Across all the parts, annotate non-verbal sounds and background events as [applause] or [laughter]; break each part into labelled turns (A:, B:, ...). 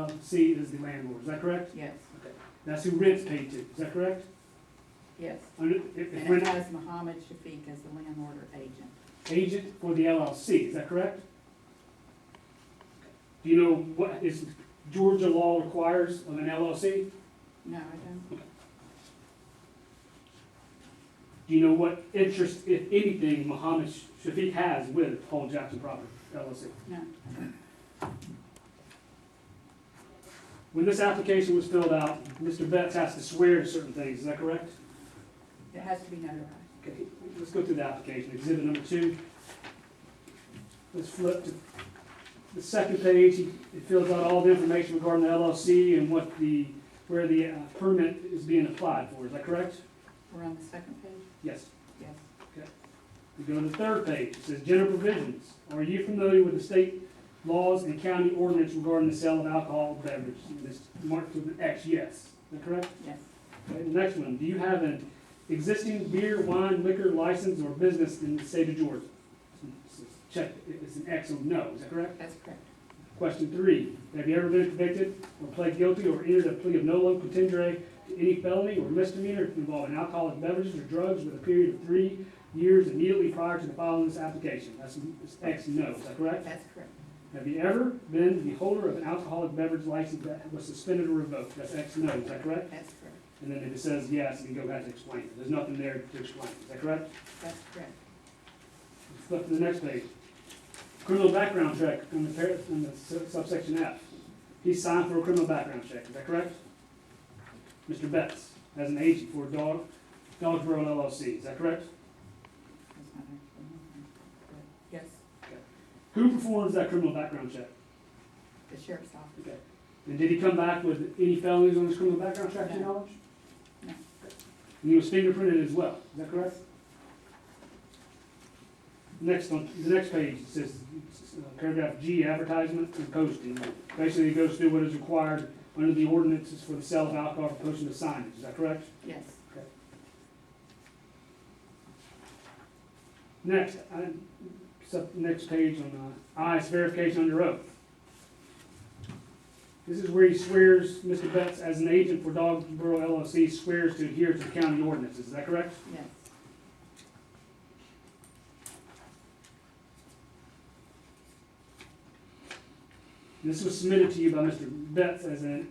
A: LLC is the landlord, is that correct?
B: Yes,
A: That's who rent's paid to, is that correct?
B: yes.
A: Under, if, if
B: And it
A: rent
B: has Mohammed Shafiq as the landlord or agent.
A: agent for the LLC, is that correct? Do you know what, is Georgia law requires of an LLC?
B: No, I don't.
A: Do you know what interest, if anything, Mohammed Shafiq has with Paul Jackson Property LLC?
B: No.
A: When this application was filled out, Mr. Betts has to swear to certain things, is that correct?
B: It has to be notarized.
A: Okay, let's go through the application, exhibit number two. Let's flip to the second page, it fills out all the information regarding the LLC and what the, where the uh, permit is being applied for, is that correct?
B: We're on the second page?
A: Yes.
B: Yes.
A: We go to the third page, it says general provisions. Are you familiar with the state laws and county ordinance regarding the sale of alcohol beverages? And It's marked with an X, yes, is that correct?
B: Yes,
A: Okay, the next one, do you have an existing beer, wine, liquor license or business in the state of Georgia? Check, it's an X or no, is that correct?
B: that's correct.
A: Question three, have you ever been convicted or pled guilty or entered a plea of nolo contendere to any felony or misdemeanor involving alcoholic beverages or drugs with a period of three years immediately prior to the filing of this application? That's it's X, no, is that correct?
B: That's correct.
A: Have you ever been the holder of an alcoholic beverage license that was suspended or revoked? That's X, no, is that correct?
B: That's correct.
A: And then if it says yes, you go back and explain it. There's nothing there to explain. Is that correct?
B: That's correct.
A: Let's flip to the next page. Criminal background check on the, par- on the su- subsection F. He signed for a criminal background check. Is that correct? Mr. Betts, as an agent for Dog, Dogsboro LLC. Is that correct?
B: That's not actually notarized. Correct. Yes,
A: Who performs that criminal background check?
B: the sheriff's office.
A: Okay. And did he come back with any felonies on his criminal background check, to your
B: No.
A: knowledge?
B: No.
A: And he was fingerprinted as well, is that correct? Next on, the next page, it says, uh, paragraph G, advertisement and posting. Basically, it goes through what is required under the ordinances for the sale of alcohol for posting of signage, is that correct?
B: Yes,
A: Next, I, sub, next page on, uh, I, is verification under oath. This is where he swears, Mr. Betts, as an agent for Dogborough LLC, swears to adhere to the county ordinances, is that correct?
B: yes,
A: This was submitted to you by Mr. Betts as a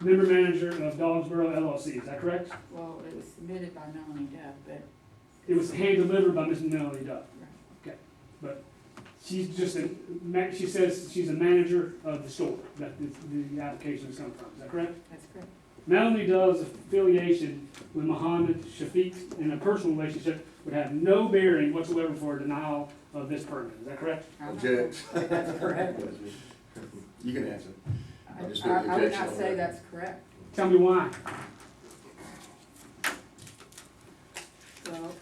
A: member manager of Dogsboro LLC, is that correct?
B: well, it was submitted by Melanie Dove, but,
A: It was hand delivered by Ms. Melanie Duff.
B: Right.
A: Okay, but she's just a, ma- she says she's a manager of the store that the, the application is coming from, is that correct?
B: that's correct,
A: Melanie Dove's affiliation with Mohammed Shafiq in a personal relationship would have no bearing whatsoever for a denial of this permit, is that correct?
B: I'm not-
C: Object.
B: [laughs] That's correct.
C: You can answer.
B: I
C: I just
B: I- I would
C: objection
B: not
C: on
B: say
C: that.
B: that's correct.
A: Tell me why.
B: Well,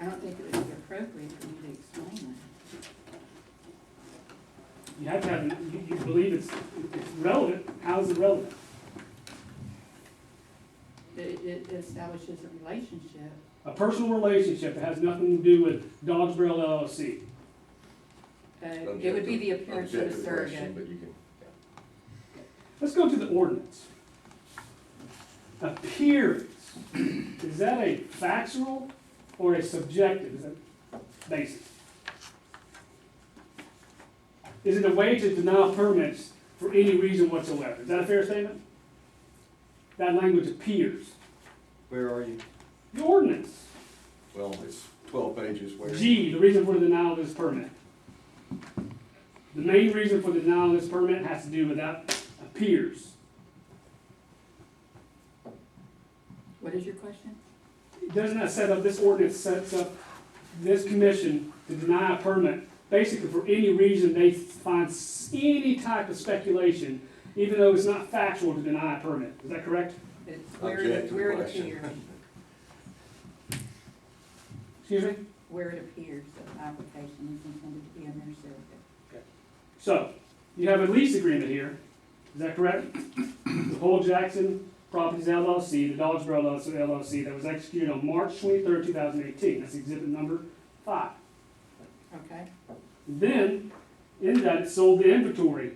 B: I don't think it would be appropriate for me to explain
A: You have to have, you, you believe it's, it's relevant, how is it relevant?
B: that. It, it establishes a relationship,
A: A personal relationship that has nothing to do with Dogsboro LLC.
B: uh, it would be the appearance of a
C: Objective question,
B: surrogate.
C: But you can,
A: Let's go to the ordinance. Appearance, is that a factual or a subjective is that basis? Is it a way to deny permits for any reason whatsoever? Is that a fair statement? That language appears.
C: where are you?
A: The ordinance,
C: Well, it's twelve pages, where?
A: G, the reason for the denial of this permit. The main reason for the denial of this permit has to do with that appears.
B: What is your question?
A: doesn't that set up, this ordinance sets up this commission to deny a permit, basically for any reason they find s- any type of speculation, even though it's not factual to deny a permit, is that correct?
B: It's where it,
C: Objective
B: where it
C: question.
B: appears,
A: Excuse me?
B: where it appears that an application is intended to be a mere surrogate.
A: So, you have a lease agreement here, is that correct? The Paul Jackson Properties LLC, the Dodgeboro LLC, that was executed on March twenty-third, two thousand eighteen, that's exhibit number five.
B: Okay,
A: Then, in that, it sold the inventory